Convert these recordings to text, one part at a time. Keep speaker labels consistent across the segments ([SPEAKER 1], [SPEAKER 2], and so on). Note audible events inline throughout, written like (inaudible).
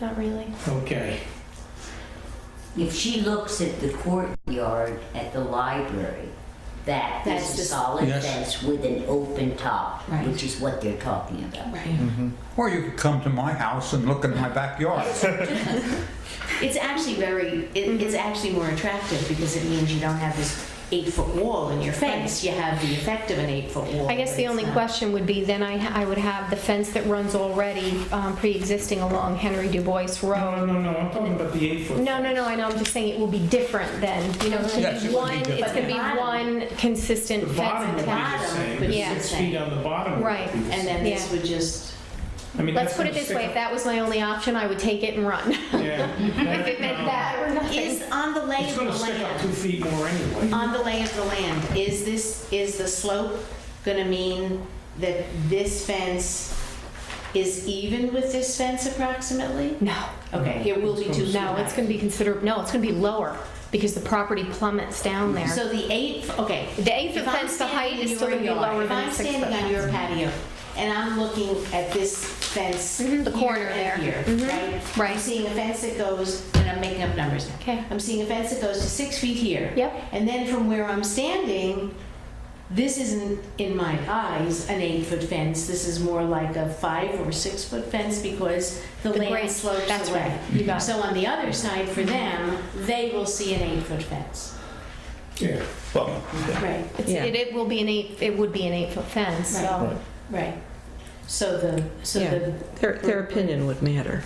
[SPEAKER 1] Not really.
[SPEAKER 2] Okay,
[SPEAKER 3] If she looks at the courtyard at the library, that
[SPEAKER 4] That's
[SPEAKER 3] is a
[SPEAKER 4] just-
[SPEAKER 3] solid
[SPEAKER 2] Yes.
[SPEAKER 3] fence with an open top,
[SPEAKER 4] Right.
[SPEAKER 3] which is what they're talking about.
[SPEAKER 1] Mm.
[SPEAKER 4] Right.
[SPEAKER 5] Or you could come to my house and look at my backyard.
[SPEAKER 4] It's actually very, it,
[SPEAKER 1] Mm-hmm.
[SPEAKER 4] it's actually more attractive because it means you don't have this eight foot wall in your face. You have the effect of an eight foot wall.
[SPEAKER 1] I guess the
[SPEAKER 4] but
[SPEAKER 1] only
[SPEAKER 4] it's not.
[SPEAKER 1] question would be, then I, ha- I would have the fence that runs already um, pre-existing along Henry DuBois
[SPEAKER 2] no,
[SPEAKER 1] Road.
[SPEAKER 2] no, no, I'm talking about the eight foot.
[SPEAKER 1] No, no, no, I know, I'm just saying it will be different then, you know, it
[SPEAKER 5] Yes,
[SPEAKER 1] could
[SPEAKER 5] it
[SPEAKER 1] be
[SPEAKER 5] would be
[SPEAKER 1] one, it's
[SPEAKER 5] different.
[SPEAKER 1] gonna be one consistent
[SPEAKER 2] The
[SPEAKER 1] fence.
[SPEAKER 2] bottom would be
[SPEAKER 1] attack.
[SPEAKER 2] the same,
[SPEAKER 4] Bottom,
[SPEAKER 2] but
[SPEAKER 1] yeah.
[SPEAKER 2] six feet on the bottom would
[SPEAKER 1] Right,
[SPEAKER 2] be the
[SPEAKER 4] And
[SPEAKER 2] same.
[SPEAKER 4] then this
[SPEAKER 1] Yeah.
[SPEAKER 4] would just,
[SPEAKER 2] I mean,
[SPEAKER 1] Let's
[SPEAKER 2] that's
[SPEAKER 1] put it
[SPEAKER 2] gonna
[SPEAKER 1] this way,
[SPEAKER 2] stick
[SPEAKER 1] if that was my only option, I would take it and run.
[SPEAKER 2] up- Yeah.
[SPEAKER 1] (laughs)
[SPEAKER 2] um,
[SPEAKER 1] If it meant that or nothing.
[SPEAKER 4] is on the lay
[SPEAKER 2] It's
[SPEAKER 4] of the
[SPEAKER 2] gonna stick up two
[SPEAKER 4] land,
[SPEAKER 2] feet more
[SPEAKER 1] Uh,
[SPEAKER 2] anyway.
[SPEAKER 4] on the lay of the land, is this, is the slope gonna mean that this fence is even with this fence approximately?
[SPEAKER 1] No,
[SPEAKER 4] Okay, it will be two feet
[SPEAKER 1] no, it's
[SPEAKER 4] high.
[SPEAKER 1] gonna be considered, no, it's gonna be lower because the property plummets down there.
[SPEAKER 4] So the eight, okay.
[SPEAKER 1] The eight foot
[SPEAKER 4] If I'm
[SPEAKER 1] fence, the height
[SPEAKER 4] standing
[SPEAKER 1] is
[SPEAKER 4] in
[SPEAKER 1] still
[SPEAKER 4] your
[SPEAKER 1] gonna be
[SPEAKER 4] yard,
[SPEAKER 1] lower than the six
[SPEAKER 4] If I'm
[SPEAKER 1] foot
[SPEAKER 4] standing on your
[SPEAKER 1] fence.
[SPEAKER 4] patio and I'm looking at this fence.
[SPEAKER 1] Mhm, the
[SPEAKER 4] here
[SPEAKER 1] corner
[SPEAKER 4] and
[SPEAKER 1] there.
[SPEAKER 4] here,
[SPEAKER 1] Mhm,
[SPEAKER 4] right?
[SPEAKER 1] right.
[SPEAKER 4] I'm seeing a fence that goes, and I'm making up numbers now.
[SPEAKER 1] Okay,
[SPEAKER 4] I'm seeing a fence that goes to six feet here.
[SPEAKER 1] Yep.
[SPEAKER 4] And then from where I'm standing, this isn't, in my eyes, an eight-foot fence. This is more like a five or six-foot fence because the
[SPEAKER 1] The
[SPEAKER 4] land
[SPEAKER 1] grade-
[SPEAKER 4] slopes
[SPEAKER 1] that's
[SPEAKER 4] away.
[SPEAKER 1] right, you got it.
[SPEAKER 4] So on the other side, for them, they will see an eight-foot fence.
[SPEAKER 2] Yeah.
[SPEAKER 6] Well,
[SPEAKER 4] Right.
[SPEAKER 1] It's-
[SPEAKER 7] Yeah.
[SPEAKER 1] it, it will be an eight, it would be an eight foot fence, so.
[SPEAKER 4] Right. Right. So the, so
[SPEAKER 7] Yeah.
[SPEAKER 4] the,
[SPEAKER 7] Their, their opinion would matter.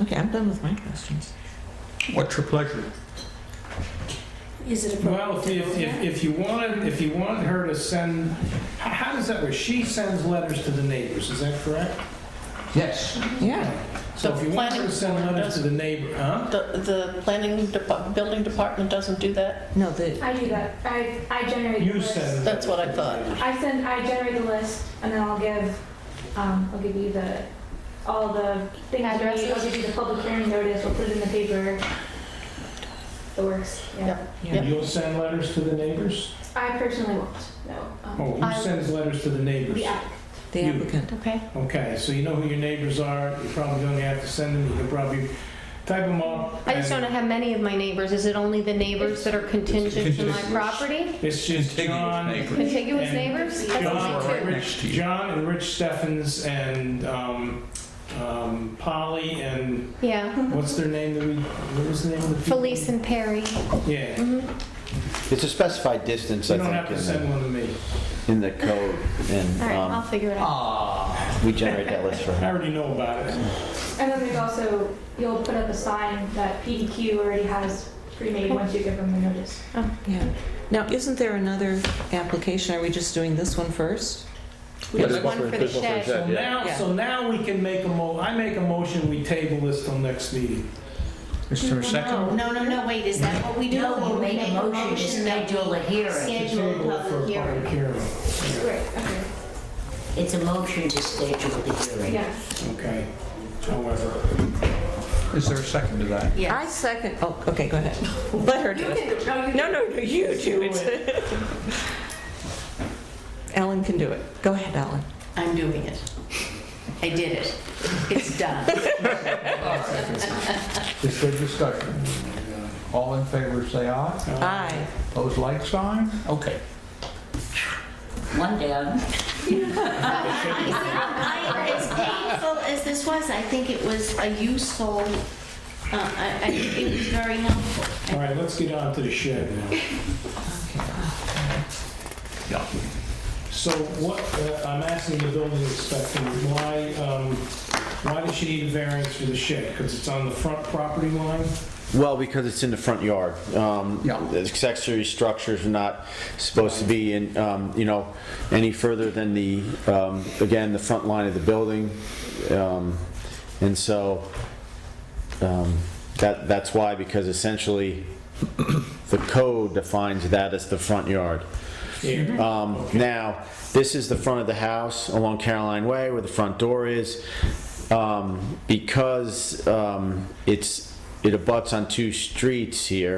[SPEAKER 7] Okay, I'm done with my questions.
[SPEAKER 5] What's your pleasure?
[SPEAKER 4] is it appropriate?
[SPEAKER 2] Well, if,
[SPEAKER 4] to
[SPEAKER 2] if,
[SPEAKER 4] do
[SPEAKER 2] if-
[SPEAKER 4] that?
[SPEAKER 2] if you wanted, if you want her to send, h- how does that work? She sends letters to the neighbors, is that correct?
[SPEAKER 5] Yes.
[SPEAKER 7] Yeah.
[SPEAKER 2] So if you want her to
[SPEAKER 8] planning
[SPEAKER 2] send
[SPEAKER 8] board
[SPEAKER 2] letters to the neighbor, huh?
[SPEAKER 8] The, the planning, depa- building department doesn't do that?
[SPEAKER 7] No, the,
[SPEAKER 9] I do that. I, I generate the
[SPEAKER 2] You
[SPEAKER 9] list.
[SPEAKER 2] send.
[SPEAKER 8] That's what I thought.
[SPEAKER 9] I send, I generate the list and then I'll give, um, I'll give you the, all the things you need. I'll give you the public hearing notice, we'll put it in the paper. The works, yeah.
[SPEAKER 7] yeah.
[SPEAKER 2] You'll send letters to the neighbors?
[SPEAKER 9] I personally won't, no.
[SPEAKER 2] Oh,
[SPEAKER 9] Um,
[SPEAKER 2] who sends letters to the neighbors?
[SPEAKER 9] The app.
[SPEAKER 7] the
[SPEAKER 2] You.
[SPEAKER 7] applicant.
[SPEAKER 1] Okay,
[SPEAKER 2] Okay, so you know who your neighbors are, you're probably gonna have to send them, you can probably type them up.
[SPEAKER 1] I just don't
[SPEAKER 2] and
[SPEAKER 1] know how many of my neighbors, is it only the neighbors that are contingent to my
[SPEAKER 5] Contiguous.
[SPEAKER 1] property?
[SPEAKER 2] It's just
[SPEAKER 5] Contiguous
[SPEAKER 2] John,
[SPEAKER 5] neighbors.
[SPEAKER 1] Contiguous
[SPEAKER 2] And
[SPEAKER 1] neighbors? That's
[SPEAKER 2] John,
[SPEAKER 1] only
[SPEAKER 5] right
[SPEAKER 1] two.
[SPEAKER 2] Rich,
[SPEAKER 5] next to you.
[SPEAKER 2] John and Rich Steffens and, um, um, Polly and
[SPEAKER 1] Yeah,
[SPEAKER 2] what's their name that we, what was the name of the people?
[SPEAKER 1] Felice and Perry.
[SPEAKER 2] Yeah,
[SPEAKER 6] it's a specified distance,
[SPEAKER 2] you
[SPEAKER 6] I
[SPEAKER 2] don't have to
[SPEAKER 6] think, in
[SPEAKER 2] send one to me.
[SPEAKER 6] the, in the code, and
[SPEAKER 1] All right, I'll
[SPEAKER 6] um,
[SPEAKER 1] figure it out.
[SPEAKER 6] we generate that list for
[SPEAKER 2] I
[SPEAKER 1] (laughs)
[SPEAKER 6] her.
[SPEAKER 2] already know about it.
[SPEAKER 9] And then there's also, you'll put up a sign that PDQ already has pre-made once you give them the notice.
[SPEAKER 7] Yeah. Now, isn't there another application? Are we just doing this one first?
[SPEAKER 1] We have one for the shed.
[SPEAKER 2] So now, so now we can make a mo, I make a motion, we table this till next meeting.
[SPEAKER 5] Is there a second?
[SPEAKER 4] Oh, No, no, no, wait, is that what we do?
[SPEAKER 3] No, you
[SPEAKER 4] We
[SPEAKER 3] make a motion to
[SPEAKER 4] that
[SPEAKER 3] schedule a
[SPEAKER 4] we
[SPEAKER 3] hearing.
[SPEAKER 4] Schedule
[SPEAKER 2] Table
[SPEAKER 4] a
[SPEAKER 2] it for
[SPEAKER 4] public hearing.
[SPEAKER 2] public hearing.
[SPEAKER 9] Great, okay,
[SPEAKER 3] It's a motion to schedule the hearing.
[SPEAKER 9] yeah.
[SPEAKER 2] Okay, however.
[SPEAKER 5] Is there a second to that?
[SPEAKER 7] I second, oh, okay, go ahead. (laughs) Let her do it. No, no, no, you do (laughs) it. Ellen can do it. Go ahead, Ellen.
[SPEAKER 4] I'm doing it. I did it. It's done.
[SPEAKER 5] Is there discussion? All in favor, say aye.
[SPEAKER 7] Aye.
[SPEAKER 5] Pose like sign? Okay.
[SPEAKER 3] One down.
[SPEAKER 4] (laughs) I- As painful as this was, I think it was a useful, uh, I, I, it was very helpful.
[SPEAKER 2] All right, let's get on to the shed now.
[SPEAKER 5] Yeah.
[SPEAKER 2] So what, uh, I'm asking the building inspector, why, um, why does she need a variance for the shed? Because it's on the front property line?
[SPEAKER 6] Well, because it's in the front yard. Um,
[SPEAKER 5] Yeah.
[SPEAKER 6] the Accessory structures are not supposed to be in, um, you know, any further than the, um, again, the front line of the building. Um, And so, um, that, that's why, because essentially, the code defines that as the front yard.
[SPEAKER 2] Yeah.
[SPEAKER 6] Um, Now, this is the front of the house along Caroline Way where the front door is. Um, Because um, it's, it abuts on two streets here,